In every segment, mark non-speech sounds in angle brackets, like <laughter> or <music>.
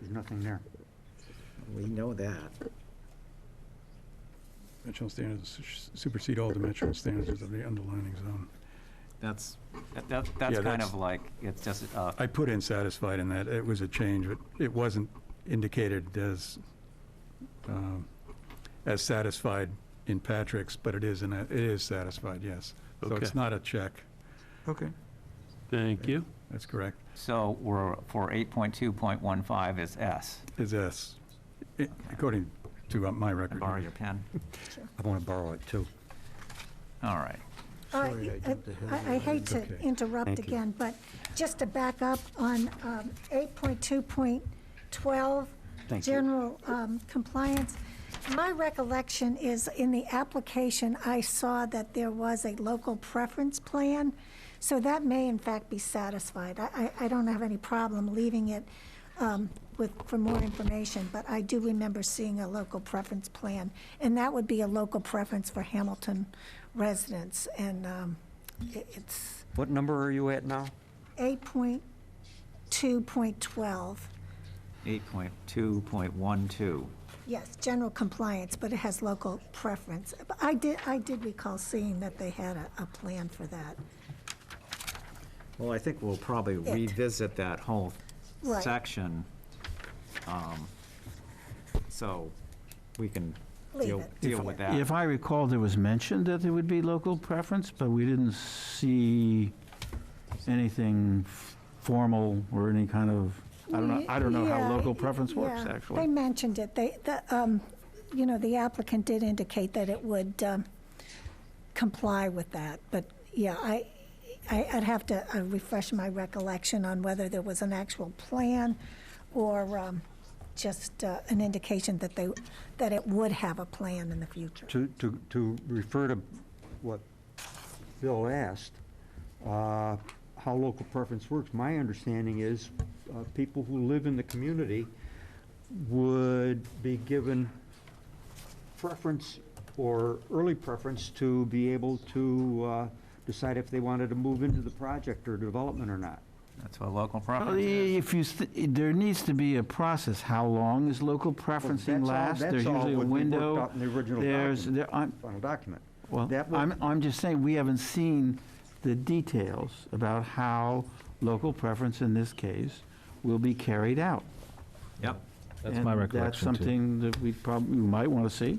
There's nothing there. We know that. Dimensional standards s- supersede all dimensional standards of the underlining zone. That's, that- that, that's Yeah, kind that's- of like, it's just, uh, I put in satisfied in that, it was a change, but it wasn't indicated as, um, as satisfied in Patrick's, but it is, in a- it is satisfied, yes. So it's Okay. not a check, Okay. Thank you. that's correct, so we're, for 8.2.15 is S. is S, i- according to uh, my Can I record. borrow your <laughs> pen? I want to borrow it, too. All right. Uh, Sorry, I I jumped ahead. I- I hate to Okay. interrupt Thank you. again, but just to back up on um, 8.2.12, Thank you. general um, compliance, my recollection is in the application, I saw that there was a local preference plan, so that may in fact be satisfied. I I- I don't have any problem leaving it um, with, for more information, but I do remember seeing a local preference plan, and that would be a local preference for Hamilton residents, and um, i- it's What number are you at now? 8.2.12, 8.2.12. yes, general compliance, but it has local preference. But I did, I did recall seeing that they had a, a plan for that. Well, I think we'll probably It. revisit that whole Right. section. um, So we can Leave deal, it. deal with that. If I recall, there was mention that there would be local preference, but we didn't see anything f- formal or any kind of, I don't know, I don't know how Yeah, local preference works, yeah. They actually. mentioned it, they, the, um, you know, the applicant did indicate that it would um, comply with that, but, yeah, I, I- I'd have to uh, refresh my recollection on whether there was an actual plan or um, just uh, an indication that they, that it would have a plan in the future. To, to, to refer to what Bill asked, uh, how local preference works, my understanding is uh, people who live in the community would be given preference or early preference to be able to uh, decide if they wanted to move into the project or development or not. That's what local Well, i- property is. If you, st- there needs to be a process. How long is local preferencing That's all- last? There's that's all usually a what we worked window. out in the original There's, document. there, I'm, Final document. Well, That would- I'm, I'm just saying, we haven't seen the details about how local preference in this case will be carried out. Yep, That's my And that's recollection, too. something that we probably, we might want to see.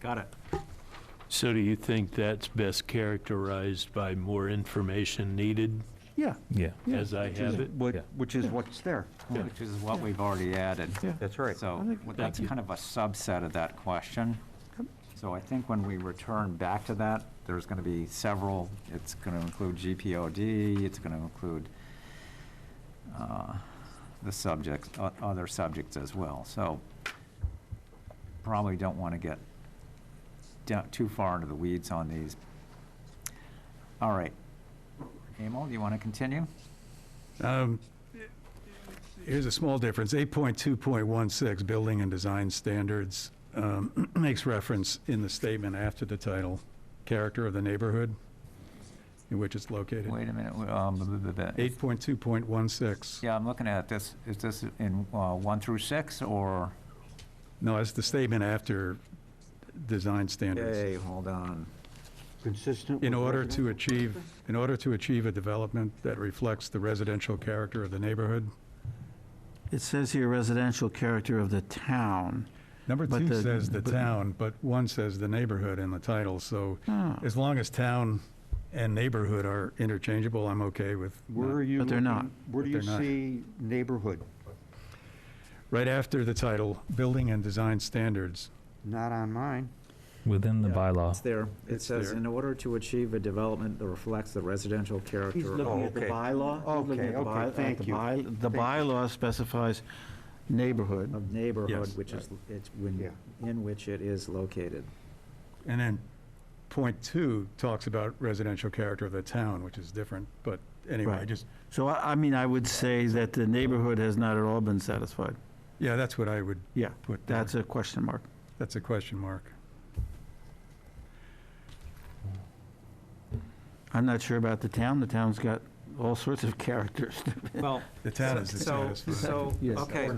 got it. So do you think that's best characterized by more information needed, Yeah, Yeah. Yeah. as I which is have it? what- Yeah. Which is what's there. Which is what we've already added. yeah. That's right. So I think- well, that's Thank you. kind of a subset of that question. So I think when we return back to that, there's going to be several, it's going to include GPOD, it's going to include uh, the subjects, o- other subjects as well. So probably don't want to get down too far into the weeds on these. All right. Emil, do you want to continue? Um, Here's a small difference. 8.2.16, Building and Design Standards, um, <clears throat> makes reference in the statement after the title, character of the neighborhood in which it's located. Wait a minute. w- um, b- b- b- 8.2.16. Yeah, I'm looking at this, is this in uh, 1 through 6, or, No, it's the statement after design standards. hey, hold on. Consistent. In with order residential to achieve, in order to achieve a development that reflects the residential character of the neighborhood. It says here residential character of the town. Number But two the- says the but- town, but one says the neighborhood in the title, so Ah. as long as town and neighborhood are interchangeable, I'm okay with. Where are you? But they're not. looking- Where do But you they're not. see neighborhood? Right after the title, building and design standards. Not on mine. Within the bylaw. It's there. It It's says, there. in order to achieve a development that reflects the residential character. He's looking at the okay. bylaw? He's looking Okay, at the okay, by- at thank the you. by- The bylaw specifies neighborhood. Of neighborhood, Yes. which is, it's, when, Yeah. in which it is located. And then point two talks about residential character of the town, which is different, but anyway, Right. just, So I, I mean, I would say that the neighborhood has not at all been satisfied. yeah, that's what I would Yeah, put there. that's a question mark. That's a question mark. I'm not sure about the town. The town's got all sorts of characters. Well, The town is so, dissatisfied. so, Yes. okay,